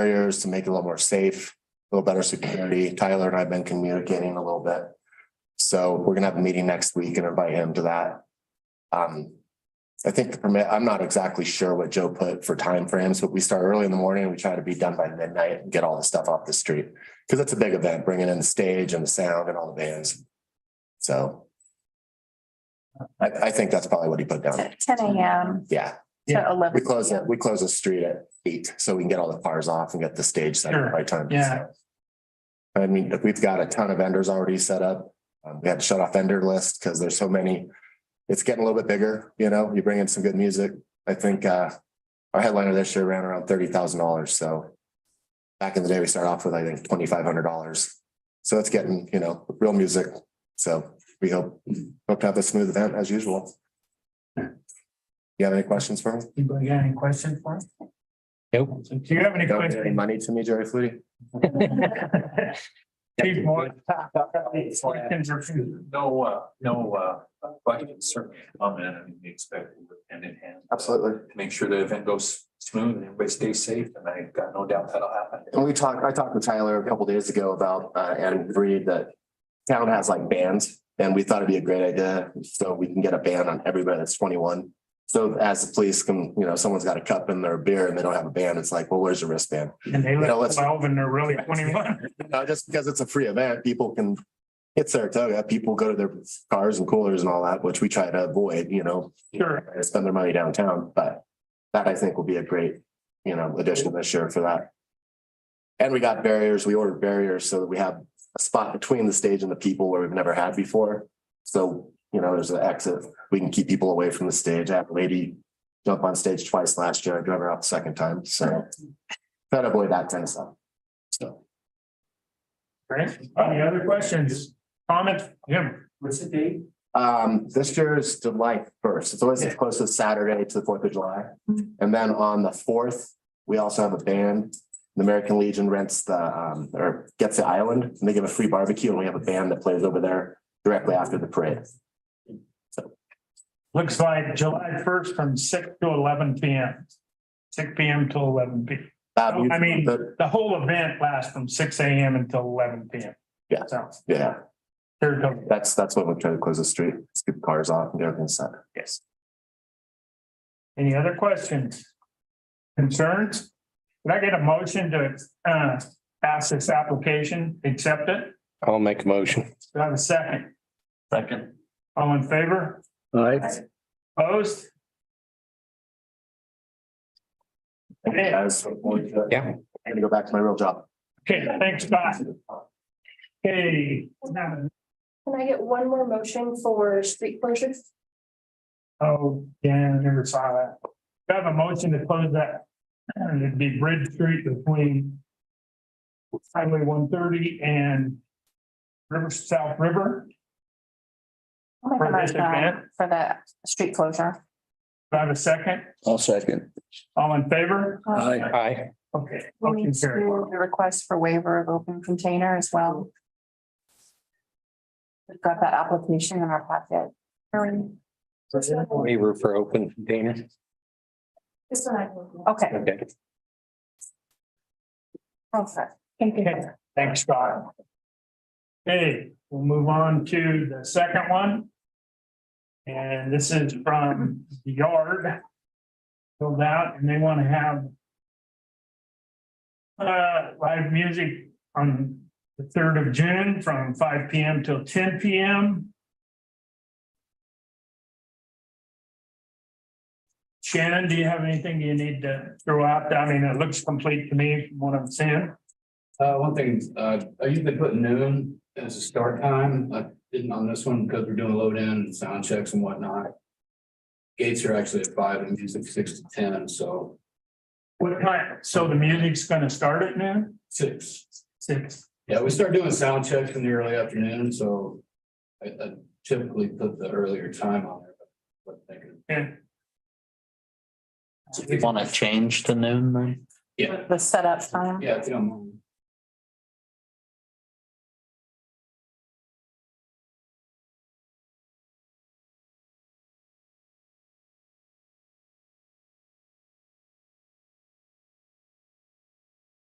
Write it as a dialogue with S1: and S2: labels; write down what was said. S1: barriers to make it a little more safe, a little better security. Tyler and I have been communicating a little bit. So we're gonna have a meeting next week and invite him to that. Um, I think the permit, I'm not exactly sure what Joe put for timeframes, but we start early in the morning and we try to be done by midnight and get all the stuff off the street. Cause it's a big event, bringing in the stage and the sound and all the bands. So. I, I think that's probably what he put down.
S2: At ten AM
S1: Yeah,
S2: to eleven.
S1: we close
S2: PM.
S1: it, we close the street at eight, so we can get all the cars off and get the stage set up by time.
S3: yeah.
S1: I mean, we've got a ton of vendors already set up. Um, we had to shut off vendor list because there's so many. It's getting a little bit bigger, you know, you bring in some good music. I think, uh, our headliner this year ran around thirty thousand dollars, so. Back in the day, we started off with, I think, twenty-five hundred dollars. So it's getting, you know, real music. So we hope, hope to have a smooth event as usual. You have any questions for me?
S3: Anybody got any questions for us?
S4: Nope.
S3: Do you have any
S1: Don't give any
S3: questions?
S1: money to me, Jerry Flutie.
S3: Chief Moore? Questions or few?
S5: No, uh, no, uh, questions, certainly comment, I mean, we expect it hand in hand.
S1: Absolutely.
S5: Make sure the event goes smooth and everybody stays safe, and I've got no doubt that'll happen.
S1: And we talked, I talked with Tyler a couple days ago about, uh, and agreed that town has like bands and we thought it'd be a great idea. So we can get a ban on everybody that's twenty-one. So as the police can, you know, someone's got a cup in their beer and they don't have a band, it's like, well, where's your wristband?
S3: And they
S1: You know,
S3: live
S1: let's-
S3: twelve and they're really twenty-one.
S1: Uh, just because it's a free event, people can, it's Saratoga, people go to their cars and coolers and all that, which we try to avoid, you know.
S3: Sure.
S1: and spend their money downtown, but that I think will be a great, you know, addition this year for that. And we got barriers, we ordered barriers so that we have a spot between the stage and the people where we've never had before. So, you know, there's an exit, we can keep people away from the stage. I had a lady jump on stage twice last year, I drove her out the second time, so. Try to avoid that kind of stuff. So,
S3: Right? Any other questions? Comments? Jim? What's the date?
S1: um, this year is July first, it's always as close to Saturday to the Fourth of July. And then on the fourth, we also have a band. The American Legion rents the, um, or gets the island and they give a free barbecue and we have a band that plays over there directly after the parade.
S3: Looks like July first from six to eleven P M. Six P M to eleven P. M.
S1: Um,
S3: I mean-
S1: but,
S3: The whole event lasts from six A M until eleven P M.
S1: Yeah.
S3: So.
S1: Yeah,
S3: There it goes.
S1: that's, that's what we're trying to close the street, scoop the cars off and get everything set.
S3: Yes. Any other questions? Concerns? Can I get a motion to uh pass this application, accept it?
S4: I'll make a motion.
S3: Do I have a second?
S5: Second.
S3: All in favor?
S4: All right.
S3: Opposed? Okay.
S1: Guys, I'm
S4: Yeah.
S1: gonna go back to my real job.
S3: Okay, thanks, Bob. Okay,
S6: Can I get one more motion for street closures?
S3: oh, yeah, I never saw that. Do I have a motion to close that? And it'd be Bridge Street between Highway one thirty and River, South River.
S2: I'll make a
S3: For this
S2: motion
S3: event?
S2: For the street closure.
S3: Do I have a second?
S4: I'll second.
S3: All in favor?
S5: Uh,
S4: Aye.
S3: Okay.
S2: We'll
S3: motion
S2: Uh, need to
S3: carried.
S2: do the request for waiver of open container as well. We've got that application in our packet. Erin,
S4: Waiver for open container.
S6: This one I can.
S2: Okay,
S4: Okay.
S2: perfect.
S6: Thank you.
S3: Thanks, Scott. Okay, we'll move on to the second one. And this is from the yard. Filled out and they want to have uh, live music on the third of June from five P M till ten P M. Shannon, do you have anything you need to throw out? I mean, it looks complete to me from what I'm seeing.
S7: Uh, one thing, uh, I usually put noon as a start time. I didn't on this one because we're doing load in and sound checks and whatnot. Gates are actually at five and music six to ten, so
S3: What time? So the music's gonna start at noon?
S7: six.
S3: Six.
S7: Yeah, we start doing sound checks in the early afternoon, so I I typically put the earlier time on there. but I'm thinking-
S3: Yeah.
S5: want to change to noon then?
S7: Yeah,
S2: The setup time.
S7: yeah, if you don't mind.